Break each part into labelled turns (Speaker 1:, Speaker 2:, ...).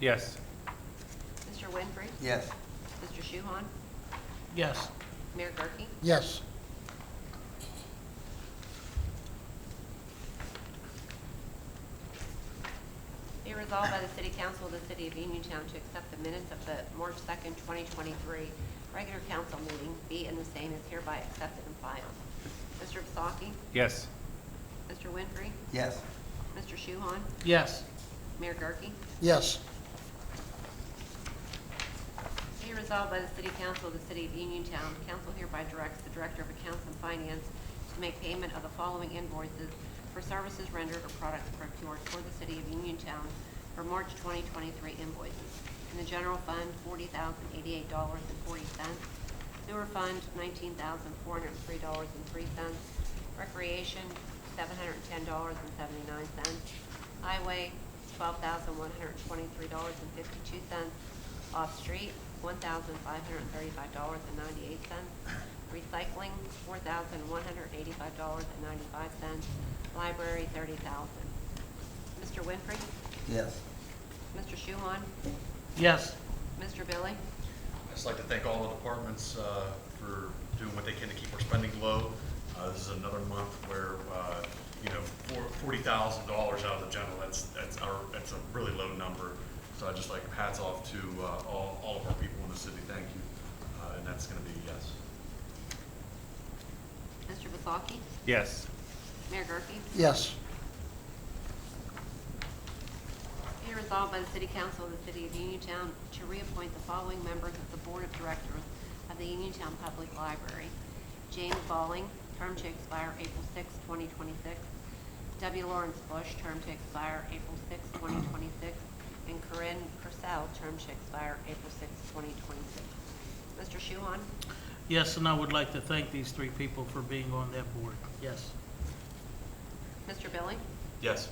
Speaker 1: Yes.
Speaker 2: Mr. Winfrey?
Speaker 3: Yes.
Speaker 2: Mr. Shuhon?
Speaker 4: Yes.
Speaker 2: Mayor Gurke?
Speaker 4: Yes.
Speaker 2: Be resolved by the City Council of the City of Uniontown to accept the minutes of the March 2nd, 2023 regular council meeting, be and the same is hereby accepted and filed. Mr. Vasaki?
Speaker 1: Yes.
Speaker 2: Mr. Winfrey?
Speaker 3: Yes.
Speaker 2: Mr. Shuhon?
Speaker 4: Yes.
Speaker 2: Mayor Gurke?
Speaker 4: Yes.
Speaker 2: Be resolved by the City Council of the City of Uniontown, council hereby directs the Director of Accounts and Finance to make payment of the following invoices for services rendered or products procured for the City of Uniontown for March 2023 invoices. In the General Fund, $40,088.40. Sewer Fund, $19,403.03. Recreation, $710.79. Highway, twelve thousand one hundred twenty-three dollars and fifty-two cents. Off-street, one thousand five hundred thirty-five dollars and ninety-eight cents. Recycling, four thousand one hundred eighty-five dollars and ninety-five cents. Library, thirty thousand. Mr. Winfrey?
Speaker 3: Yes.
Speaker 2: Mr. Shuhon?
Speaker 4: Yes.
Speaker 2: Mr. Billy?
Speaker 5: I'd just like to thank all the departments uh, for doing what they can to keep our spending low. Uh, This is another month where, uh, you know, four- $40,000 out of the general, that's, that's our, that's a really low number. So I'd just like hats off to uh, all, all of our people in the city, thank you. Uh, And that's going to be a yes.
Speaker 2: Mr. Vasaki?
Speaker 1: Yes.
Speaker 2: Mayor Gurke?
Speaker 4: Yes.
Speaker 2: Be resolved by the City Council of the City of Uniontown to reappoint the following members of the Board of Directors of the Uniontown Public Library. James Balling, term to expire April 6, 2026. W. Lawrence Bush, term to expire April 6, 2026. And Corinne Purcell, term to expire April 6, 2026. Mr. Shuhon?
Speaker 4: Yes, and I would like to thank these three people for being on that board. Yes.
Speaker 2: Mr. Billy?
Speaker 5: Yes.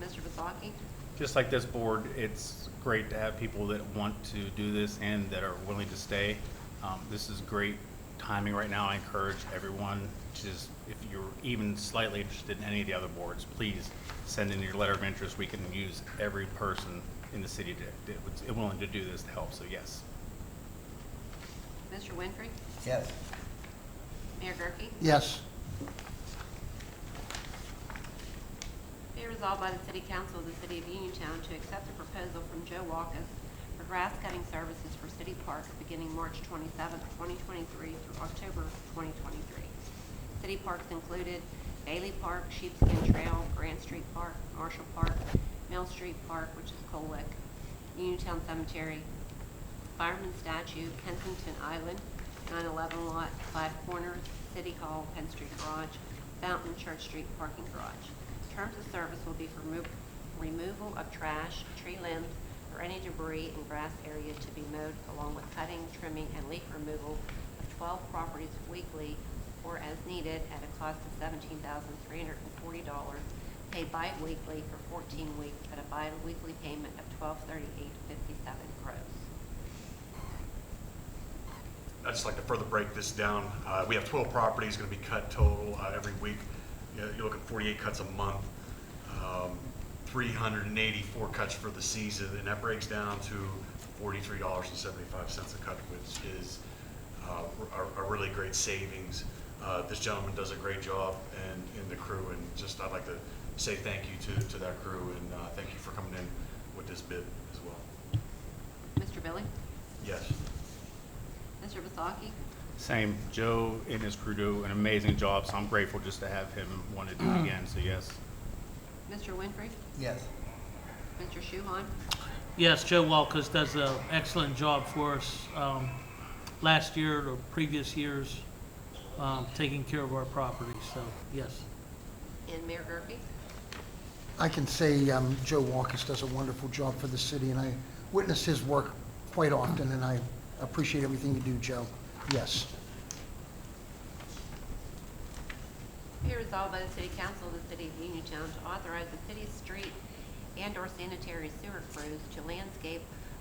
Speaker 2: Mr. Vasaki?
Speaker 1: Just like this board, it's great to have people that want to do this and that are willing to stay. Um, This is great timing right now. I encourage everyone to just, if you're even slightly interested in any of the other boards, please send in your letter of interest. We can use every person in the city that, that was willing to do this to help, so yes.
Speaker 2: Mr. Winfrey?
Speaker 3: Yes.
Speaker 2: Mayor Gurke?
Speaker 4: Yes.
Speaker 2: Be resolved by the City Council of the City of Uniontown to accept a proposal from Joe Walkus for grass cutting services for city parks beginning March 27, 2023 through October 2023. City parks included Bailey Park, Sheepskin Trail, Grant Street Park, Marshall Park, Mill Street Park, which is Cole Lick, Uniontown Cemetery, Fireman Statue, Kensington Island, 911 Lot, Five Corners, City Hall, Penn Street Garage, Fountain, Church Street Parking Garage. Terms of service will be for remo- removal of trash, tree limbs, or any debris in grass area to be mowed, along with cutting, trimming, and leaf removal of 12 properties weekly or as needed at a cost of $17,340 paid bi-weekly for 14 weeks at a bi-weekly payment of $1238.57 gross.
Speaker 5: I'd just like to further break this down. Uh, We have 12 properties going to be cut total uh, every week. You know, You're looking 48 cuts a month, um, 384 cuts for the season, and that breaks down to $43.75 a cut, which is uh, a a really great savings. Uh, This gentleman does a great job and, and the crew, and just, I'd like to say thank you to, to that crew, and uh, thank you for coming in with this bid as well.
Speaker 2: Mr. Billy?
Speaker 5: Yes.
Speaker 2: Mr. Vasaki?
Speaker 1: Same, Joe and his crew do an amazing job, so I'm grateful just to have him want to do it again, so yes.
Speaker 2: Mr. Winfrey?
Speaker 3: Yes.
Speaker 2: Mr. Shuhon?
Speaker 4: Yes, Joe Walkus does an excellent job for us um, last year or previous years, um, taking care of our property, so, yes.
Speaker 2: And Mayor Gurke?
Speaker 6: I can say um, Joe Walkus does a wonderful job for the city, and I witness his work quite often, and I appreciate everything you do, Joe. Yes.
Speaker 2: Be resolved by the City Council of the City of Uniontown to authorize the city's street and/or sanitary sewer crews to landscape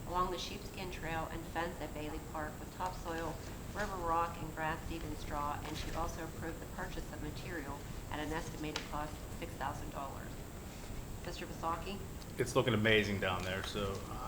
Speaker 2: along the Sheepskin Trail and fence at Bailey Park with topsoil, river rock, and grass seed and straw, and to also approve the purchase of material at an estimated cost of $6,000. Mr. Vasaki?
Speaker 1: it's looking amazing down there, so uh,